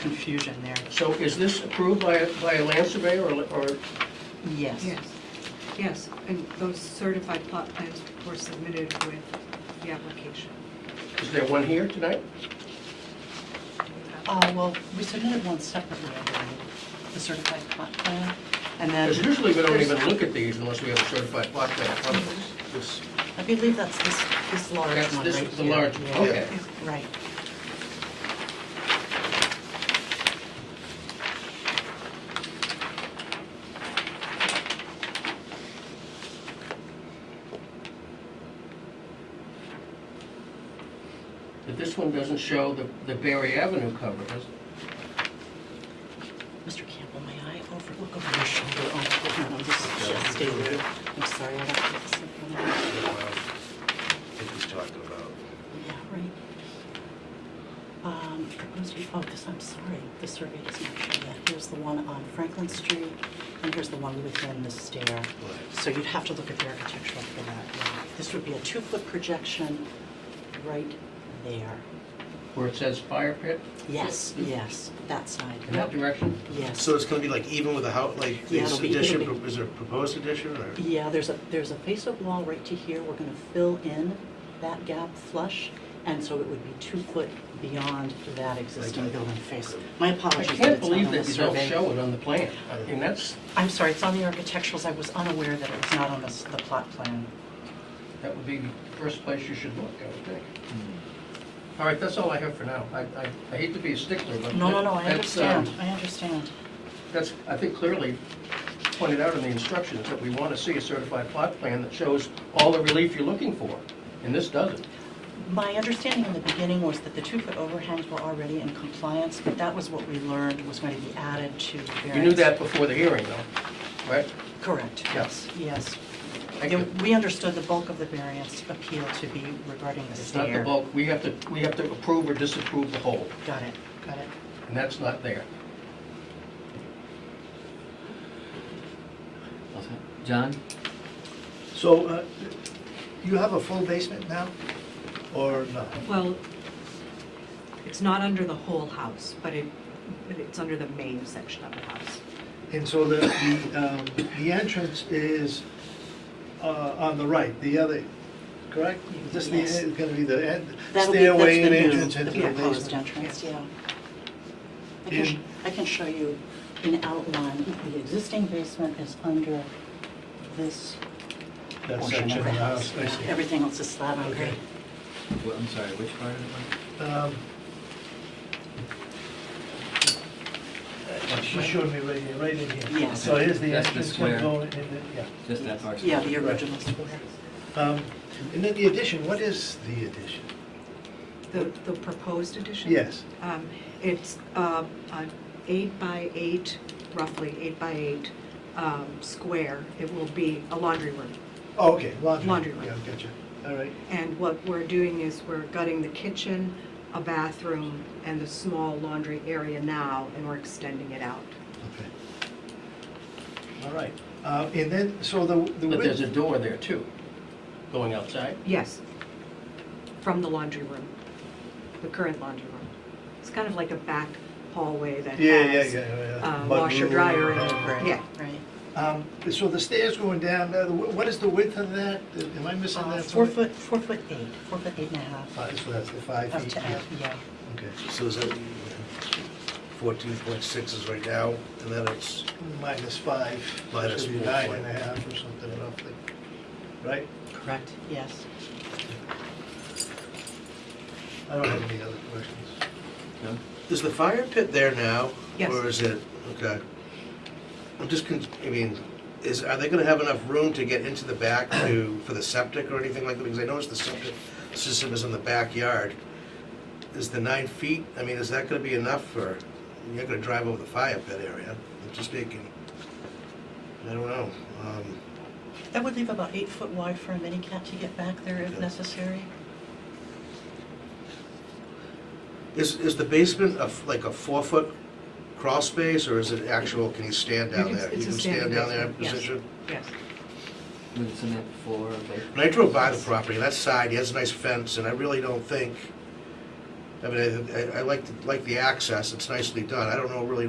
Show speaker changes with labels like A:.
A: confusion there.
B: So is this approved by, a- by a land surveyor or, or,
A: Yes.
C: Yes, yes, and those certified plot plans were submitted with the application.
B: is there one here tonight?
D: Uh, well, we submitted one separately, I believe, the certified plot plan, and then.
B: Because usually we don't even look at these unless we have a certified plot plan in front of us. This-
D: I believe that's this, this large one right
B: That's,
D: here.
B: this is the large, one. okay.
D: Yeah, Right.
B: But this one doesn't show the, the Berry Avenue cover, does it?
D: Mr. Campbell, may I overlook over your shoulder? Oh, hold on, this just stay there. I'm sorry, I don't have this in front of me.
E: he's talking about.
D: Yeah, right. Um, proposed, oh, this, I'm sorry, the survey does not show that. Here's the one on Franklin Street, and here's the one within the stair. So you'd have to look at the architectural for that. yeah. This would be a two-foot projection right there.
B: Where it says fire pit
D: Yes, yes, that side.
B: in that direction?
D: Yes.
E: So it's gonna be like even with the house, like
D: Yeah,
E: this
D: it'll be-
E: addition,
D: it'll be-
E: is there a proposed addition or?
D: Yeah, there's a, there's a face-up wall right to here. We're going to fill in that gap flush, and so it would be two foot beyond that existing
E: Like that.
D: building face. My
B: I
D: apologies that
B: can't
D: it's not on
B: believe
D: the
B: that you don't
D: survey.
B: show it on the plan. I mean, that's,
D: I'm sorry, it's on the architecturals. I was unaware that it was not on the, s- the plot plan.
B: that would be the first place you should look, I would think. All right, that's all I have for now. I, I I hate to be a stickler, but.
D: No, no, no, I
B: that's, um,
D: understand, I understand.
B: That's, I think clearly pointed out in the instructions that we want to see a certified plot plan that shows all the relief you're looking for, and this doesn't.
D: My understanding in the beginning was that the two-foot overhangs were already in compliance, but that was what we learned was going to be added to the
B: You knew
D: variance.
B: that before the hearing, though, right?
D: Correct, yes, yes.
B: Thank you.
D: We understood the bulk of the variance appeal to be regarding the
B: It's not the
D: stair.
B: bulk, we have to, we have to approve or disapprove the whole,
D: Got it, got it.
B: and that's not there.
F: John?
E: So, uh, you have a full basement now or not?
G: Oh.
C: Well, it's not under the whole house, but it, but it's under the main section of the house.
G: And so the, the, um, the entrance is uh, on the right, the other, correct? Is this the,
D: Yes.
G: is gonna be the end-
D: That'll be- that's
G: stairway
D: the
G: and
D: new-
G: entrance into the
D: The proposed
G: basement?
D: entrance, yeah. I can, sh-
G: In-
D: I can show you in outline, the existing basement is under this
G: That
D: portion of
G: section
D: the
G: of the
D: house.
G: house, I see.
D: Everything else is slab on grade.
G: Okay.
F: Wh- I'm sorry, which part of it?
G: Um, She showed me right here, right in here.
D: Yes.
G: So here's the
F: That's the
G: entrance, you
F: square.
G: go in, and then- yeah.
F: Just that part?
D: Yeah, the original square.
G: Um, And then the addition, what is the addition?
C: The, the proposed addition?
G: Yes.
C: Um, It's um, an eight by eight, roughly eight by eight um, square. It will be a laundry room.
G: Oh, okay, laundry.
C: Laundry room.
G: Yeah, gotcha, all right.
C: And what we're doing is we're gutting the kitchen, a bathroom, and the small laundry area now, and we're extending it out.
G: Okay. All right, Uh, and then, so the, the
B: But there's
G: width,
B: a door there, too, going outside.
C: Yes, from the laundry room, the current laundry room. It's kind of like a back hallway that
G: Yeah, yeah,
C: has
G: yeah, yeah.
C: uh,
G: Mudroom,
C: washer, dryer,
G: uh,
C: and, yeah.
D: Right.
G: um, so the stairs going down, uh, the wi- what is the width of that? Am I missing
D: Uh,
G: that?
D: Four
G: somewhere?
D: foot, four foot eight, four foot eight and a half.
G: Five, so that's the five
D: Up
G: feet.
D: to,
G: yeah.
D: yeah,
G: Okay.
E: So is that fourteen point six is right now, and then it's,
G: Minus five.
E: Minus
G: should be
E: four
G: Nine
E: point.
G: and a half or something roughly, right?
D: correct, yes.
G: I don't have any other questions.
F: John?
E: is the fire pit there now?
C: Yes.
E: Or is it, okay. I'm just, con- I mean, is, are they gonna have enough room to get into the back to, for the septic or anything like that? Because I noticed the septic system is in the backyard. Is the nine feet, I mean, is that gonna be enough for, you're gonna drive over the fire pit area, I'm just thinking. I don't know. um,
D: That would leave about eight foot wide for a mini cat to get back there if
E: Okay.
D: necessary.
E: Is, is the basement of, like a four-foot crawl space, or is it actual, can you stand down
C: You
E: there?
C: can- it's
E: You
C: a
E: can stand
C: standing
E: down there in
C: basement, yes.
E: position?
C: Yes.
F: With a cement floor, like?
E: When I drove by the property, that side, he has a nice fence, and I really don't think I mean, I, I- I like, the- like the access, it's nicely done, I don't know really